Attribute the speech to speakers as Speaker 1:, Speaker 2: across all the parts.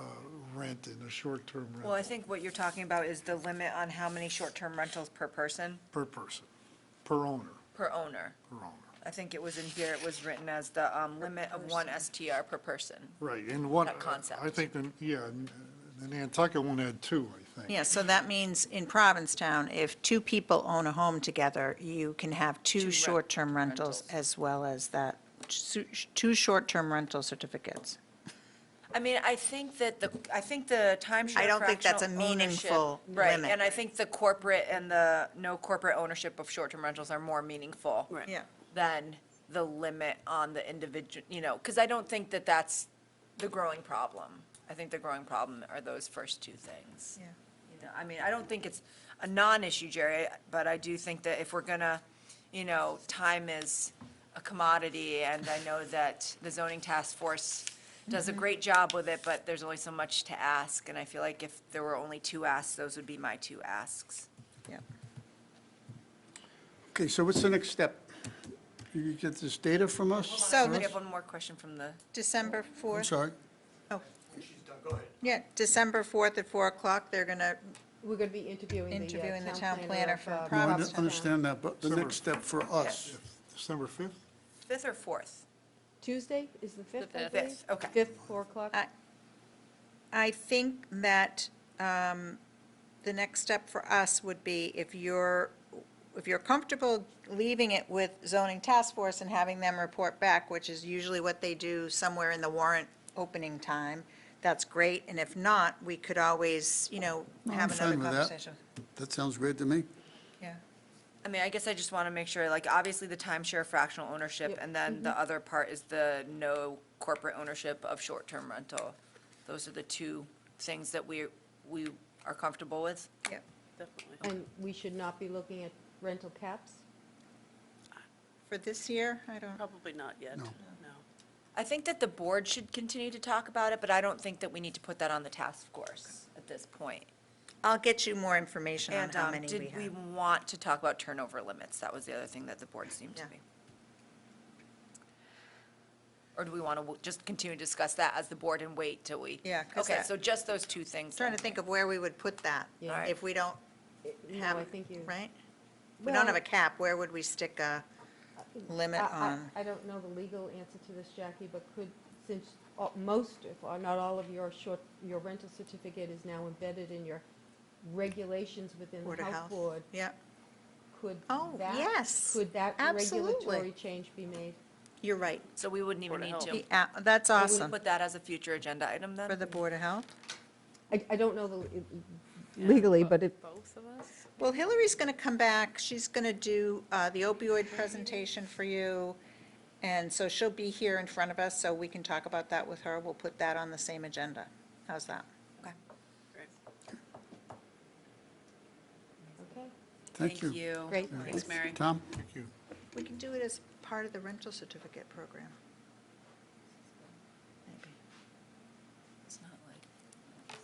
Speaker 1: uh, rent and a short-term
Speaker 2: Well, I
Speaker 1: rental
Speaker 2: think what you're talking about is the limit on how many short-term rentals per person,
Speaker 1: per person, per owner,
Speaker 2: per owner.
Speaker 1: per owner.
Speaker 2: I think it was in here, it was written as the um, limit of one STR per person.
Speaker 1: Right, and what,
Speaker 2: That concept.
Speaker 1: I think, the- yeah, and the Nantucket one had two, I think.
Speaker 3: Yeah, so that means in Provincetown, if two people own a home together, you can have
Speaker 2: Two
Speaker 3: two
Speaker 2: rent-
Speaker 3: short-term rentals
Speaker 2: rentals.
Speaker 3: as well as that, su- two short-term rental certificates.
Speaker 2: I mean, I think that the, I think the timeshare
Speaker 3: I don't think that's a
Speaker 2: fractional ownership-
Speaker 3: meaningful
Speaker 2: Right,
Speaker 3: limit.
Speaker 2: and I think the corporate and the no corporate ownership of short-term rentals are more meaningful.
Speaker 4: Right.
Speaker 3: Yeah.
Speaker 2: Than the limit on the individual, you know, because I don't think that that's the growing problem. I think the growing problem are those first two things.
Speaker 3: Yeah.
Speaker 2: You know, I mean, I don't think it's a non-issue, Jerry, but I do think that if we're gonna, you know, time is a commodity, and I know that the zoning task force does
Speaker 3: Mm-hmm.
Speaker 2: a great job with it, but there's only so much to ask, and I feel like if there were only two asks, those would be my two asks.
Speaker 5: Okay, so what's the next step? You get this data from us?
Speaker 3: So
Speaker 2: We
Speaker 3: the-
Speaker 2: have one more question from the,
Speaker 3: December
Speaker 5: I'm
Speaker 3: 4th,
Speaker 5: sorry.
Speaker 3: yeah, December 4th at 4 o'clock, they're going to,
Speaker 4: We're going to be interviewing the. uh,
Speaker 3: Interviewing the town planner
Speaker 4: of,
Speaker 3: for
Speaker 4: uh,
Speaker 5: No, I
Speaker 3: Providence.
Speaker 5: understand that, but the next step for us,
Speaker 1: December 5th?
Speaker 2: fifth or fourth?
Speaker 4: Tuesday is the 5th, I
Speaker 2: fifth.
Speaker 4: believe?
Speaker 2: Fifth, okay.
Speaker 4: 5th, 4 o'clock.
Speaker 3: I- I think that um, the next step for us would be if you're, if you're comfortable leaving it with zoning task force and having them report back, which is usually what they do somewhere in the warrant opening time, that's great. And if not, we could always, you know,
Speaker 5: I'm
Speaker 3: have another
Speaker 5: fine with that.
Speaker 3: conversation.
Speaker 5: that sounds great to me.
Speaker 3: Yeah.
Speaker 2: I mean, I guess I just want to make sure, like, obviously the timeshare fractional ownership,
Speaker 4: Yep.
Speaker 2: and then the other part is the no corporate ownership of short-term rental. Those are the two things that we, we are comfortable with.
Speaker 3: Yep.
Speaker 4: And we should not be looking at rental caps?
Speaker 3: For this year, I don't,
Speaker 6: Probably not yet, no.
Speaker 2: I think that the board should continue to talk about it, but I don't think that we need to put that on the task force at this point.
Speaker 3: I'll get you more information on
Speaker 2: And
Speaker 3: how
Speaker 2: um,
Speaker 3: many we
Speaker 2: did we
Speaker 3: have.
Speaker 2: want to talk about turnover limits? That was the other thing that the board seemed to
Speaker 3: Yeah.
Speaker 2: be. Or do we want to just continue to discuss that as the board and wait till we?
Speaker 3: Yeah, 'cause
Speaker 2: Okay,
Speaker 3: that-
Speaker 2: so just those two things.
Speaker 3: Trying
Speaker 2: then.
Speaker 3: to think of where we would put that,
Speaker 4: Yeah.
Speaker 3: if we don't
Speaker 4: No,
Speaker 3: have,
Speaker 4: I think you.
Speaker 3: right? If We don't have a
Speaker 4: Well-
Speaker 3: cap, where would we stick a limit
Speaker 4: I- I-
Speaker 3: on?
Speaker 4: I don't know the legal answer to this, Jackie, but could, since all- most, if not all of your short, your rental certificate is now embedded in your regulations within
Speaker 3: Board
Speaker 4: the
Speaker 3: of
Speaker 4: health
Speaker 3: Health?
Speaker 4: board,
Speaker 3: Yeah,
Speaker 4: could
Speaker 3: Oh,
Speaker 4: that-
Speaker 3: yes,
Speaker 4: Could that
Speaker 3: absolutely.
Speaker 4: regulatory change be made?
Speaker 3: you're right.
Speaker 2: So we wouldn't even
Speaker 6: Board of
Speaker 2: need to.
Speaker 6: Health.
Speaker 3: The a- That's
Speaker 2: We'll
Speaker 3: awesome,
Speaker 2: Put that as a future agenda item then?
Speaker 3: for the Board of Health.
Speaker 4: I, I don't know the, le- legally, but it,
Speaker 6: Both of us?
Speaker 3: Well, Hillary's going to come back, she's going to do uh, the opioid presentation for you, and so she'll be here in front of us, so we can talk about that with her. We'll put that on the same agenda. How's that?
Speaker 2: Okay.
Speaker 4: okay,
Speaker 5: Thank you.
Speaker 4: great.
Speaker 6: Thanks, Mary.
Speaker 5: Tom?
Speaker 1: Thank you.
Speaker 3: We can do it as part of the rental certificate program. Maybe.
Speaker 2: It's not like-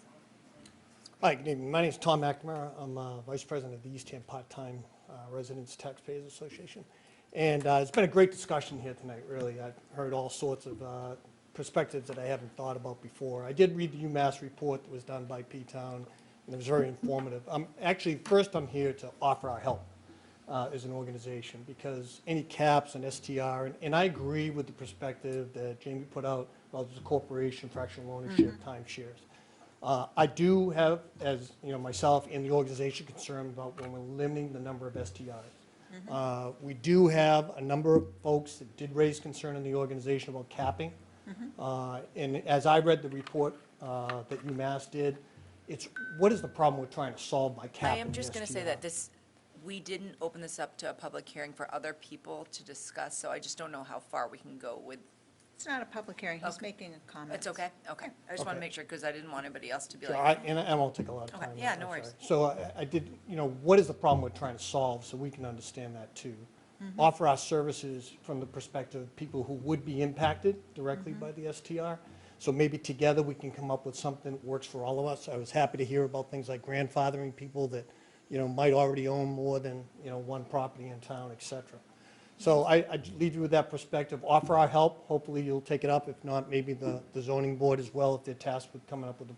Speaker 7: Hi, good evening. My name's Tom McNamara. I'm uh, Vice President of the Eastham Part-Time uh, Residents Taxpayers Association. And uh, it's been a great discussion here tonight, really. I've heard all sorts of uh, perspectives that I haven't thought about before. I did read the UMass report that was done by P-Town, and it was very informative. I'm Actually, first, I'm here to offer our help uh, as an organization, because any caps and STR, and- and I agree with the perspective that Jamie put out about the corporation, fractional ownership,
Speaker 2: Mm-hmm.
Speaker 7: timeshares. Uh, I do have, as, you know, myself and the organization concerned about when we're limiting the number of STIs.
Speaker 2: Mm-hmm.
Speaker 7: Uh, We do have a number of folks that did raise concern in the organization about capping.
Speaker 2: Mm-hmm.
Speaker 7: Uh, And as I read the report uh, that UMass did, it's, what is the problem we're trying to solve by
Speaker 2: I
Speaker 7: capping
Speaker 2: am just going to say
Speaker 7: STIs?
Speaker 2: that this, we didn't open this up to a public hearing for other people to discuss, so I just don't know how far we can go with,
Speaker 3: It's not a public hearing, he's
Speaker 2: Okay.
Speaker 3: making a comment.
Speaker 2: it's okay? Okay. I just want to
Speaker 7: Okay.
Speaker 2: make sure, because I didn't want anybody else to be
Speaker 7: So
Speaker 2: like,
Speaker 7: I- And I won't take a lot of
Speaker 2: Okay,
Speaker 7: time.
Speaker 2: yeah,
Speaker 7: I'm
Speaker 2: no worries.
Speaker 7: sorry. So I- I did, you know, what is the problem we're trying to solve, so we can understand that too?
Speaker 2: Mm-hmm.
Speaker 7: Offer our services from the perspective of people who would be impacted directly
Speaker 2: Mm-hmm.
Speaker 7: by the STR. So maybe together we can come up with something that works for all of us. I was happy to hear about things like grandfathering people that, you know, might already own more than, you know, one property in town, et cetera. So I,
Speaker 2: Mm-hmm.
Speaker 7: I leave you with that perspective, offer our help, hopefully you'll take it up, if not, maybe the, the zoning board as well, if they're tasked with coming up with a